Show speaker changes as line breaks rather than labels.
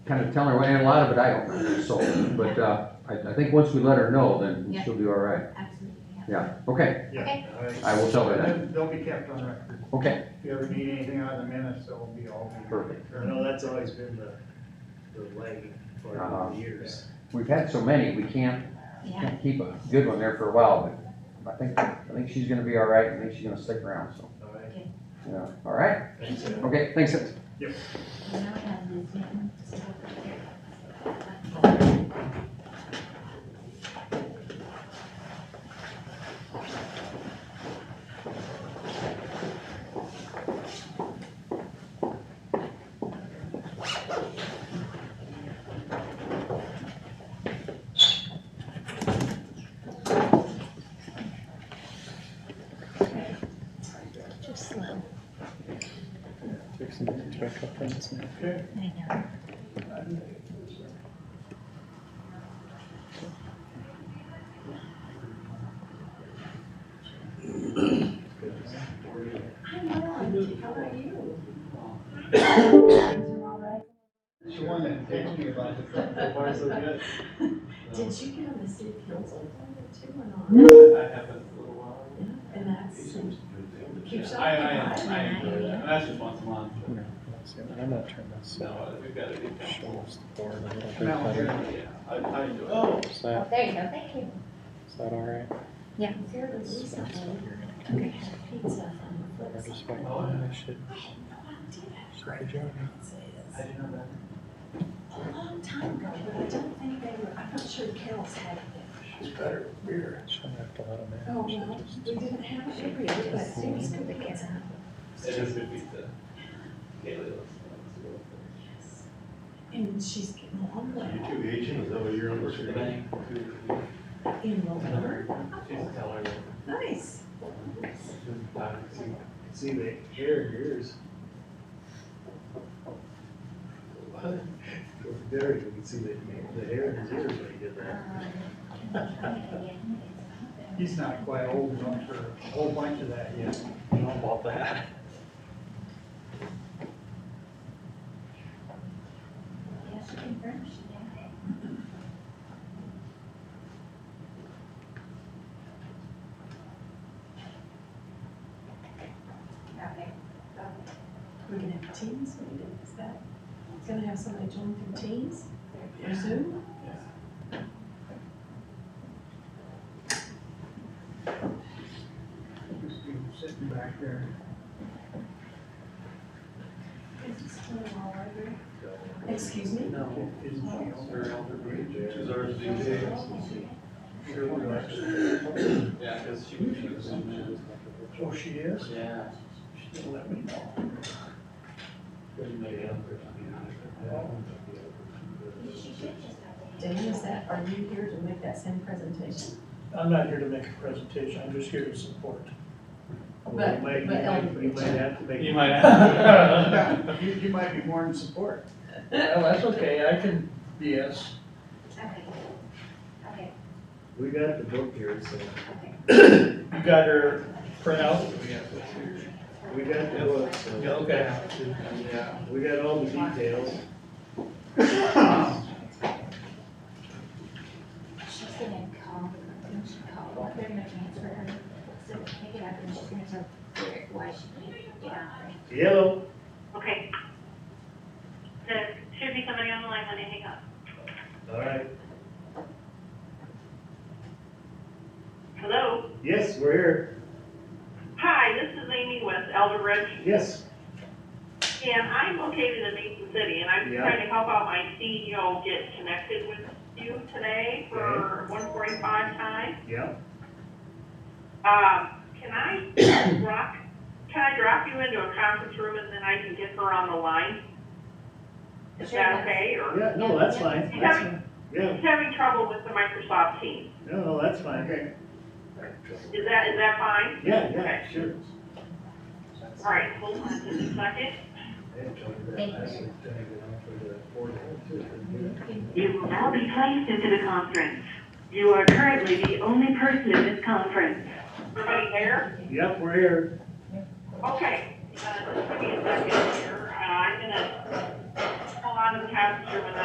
kind of telling her, and a lot of it I don't know, so, but, uh, I, I think once we let her know, then
Yeah.
she'll be all right.
Absolutely, yeah.
Yeah, okay,
Okay.
I will tell her that.
They'll be kept on record.
Okay,
If you ever need anything out of the minutes, they'll be all.
Perfect.
I know that's always been the, the leg for
Uh-huh.
years.
we've had so many, we can't,
Yeah,
can't keep a good one there for a while, but I think, I think she's gonna be all right, I think she's gonna stick around, so,
All right,
yeah, all right?
thanks, Ed.
Okay, thanks, that's-
you know, and this man, so over here.
Just slow.
Fix some things back up on this map.
I know.
It's the one that texted me about the truck.
Why so good?
Did you get on the city council appointment too or not?
I haven't for a while.
And that's, keeps up.
I, I, I enjoy
Yeah.
that, that's just once a month,
No, that's it. I'm gonna turn this uh,
no, we've got a big council.
shoulders forward a little bit
Now,
better.
Yeah, I, I enjoy it.
Is
Oh,
that,
there you go, thank you.
is that all right?
I was there with Lisa on
Okay.
pizza from the
Or
flip
just
side. Oh,
wait?
Oh, yeah.
I should,
I had no idea.
should be joking.
I didn't know
A long time ago, but I don't think they were, I'm not sure Carol's had it.
Shouldn't have to let him in.
Oh,
I should
well,
just-
we didn't have it every year, but things could be getting out.
that. It is good pizza. Kaylee looks.
And she's getting along well
You two aging, is that what you're under?
in November.
She's a teller.
Nice.
See the hair in yours. What? There, you can see the, the hair in his ears when he did that.
He's not quite old enough for a whole bunch of that yet.
You know about that.
Yes, she can furnish it, yeah.
Okay. We're gonna have teams, what do you do, is that, it's gonna have somebody join through teams, or Zoom?
Just be sitting back there.
Is this one all over? Excuse me?
No.
Isn't she old?
Her elder brother.
She's ours these days.
Yeah, cause she was, she was in there.
Oh, she is?
Yeah.
She didn't let me know.
Couldn't make it up there, I mean, I-
She should just have it.
Dan, is that, are you here to make that same presentation?
I'm not here to make a presentation, I'm just here to support.
Well, you might-
but
You might you might have to make.
You might have.
You, you might be more in support. Well, Oh, that's okay, I can BS.
Okay. Okay,
We got the book here, so
okay.
You got her printout?
we got the book, so.
okay.
Yeah.
We got all the details.
She's gonna call, I think she called, they're gonna transfer her, so pick it up and she's gonna tell Derek why she can't get out.
Yellow.
Okay. There should be somebody on the line when they hang up.
All right,
Hello?
yes, we're here,
Hi, this is Amy West, Elder Ridge,
yes.
and I'm located in Mason City, and I'm
Yeah.
trying to help out my CEO get connected with you today for one forty-five time.
Yeah.
Uh, can I drop, can I drop you into a conference room and then I can get her on the line? Is
Sure.
that okay, or?
Yeah, no, that's fine, that's fine, yeah,
She's having trouble with the Microsoft Teams.
no, no, that's fine,
Okay.
Is that, is that fine?
yeah, yeah, sure.
All right, hold on just a second. You will now be placed into the conference. You are currently the only person in this conference. Everybody there?
Yep, we're here,
Okay. Uh, just give me a second here. Uh, I'm gonna hold on to the conference room and